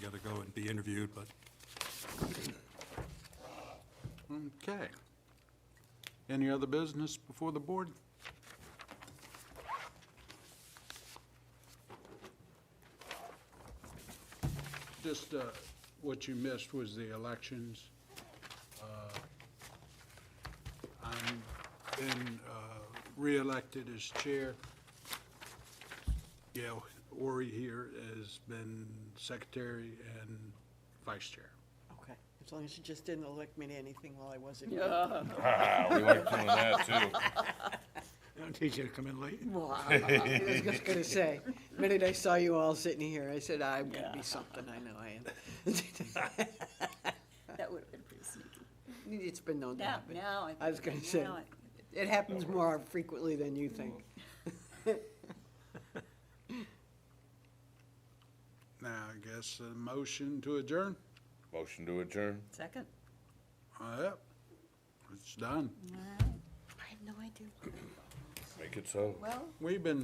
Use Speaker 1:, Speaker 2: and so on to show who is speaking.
Speaker 1: got to go and be interviewed, but
Speaker 2: Okay. Any other business before the board? Just, uh, what you missed was the elections. Uh, I'm been, uh, reelected as chair. Gail Ori here has been secretary and vice chair.
Speaker 3: Okay, as long as you just didn't elect me to anything while I wasn't. here.
Speaker 4: Yeah.
Speaker 5: Ah, we like doing that too.
Speaker 2: I don't need you to come in late.
Speaker 3: Well, I I was just gonna say, the minute I saw you all sitting here, I said, I'm gonna be something, I know I am.
Speaker 4: That would have been pretty sneaky.
Speaker 3: It's been known to
Speaker 4: Now,
Speaker 3: happen.
Speaker 4: now.
Speaker 3: I was gonna say,
Speaker 4: now I-
Speaker 3: it happens more frequently than you think.
Speaker 2: Now, I guess a motion to adjourn?
Speaker 5: Motion to adjourn?
Speaker 4: Second?
Speaker 2: Yep, it's done.
Speaker 4: I have no idea.
Speaker 5: Make it so.
Speaker 4: Well.
Speaker 2: We've been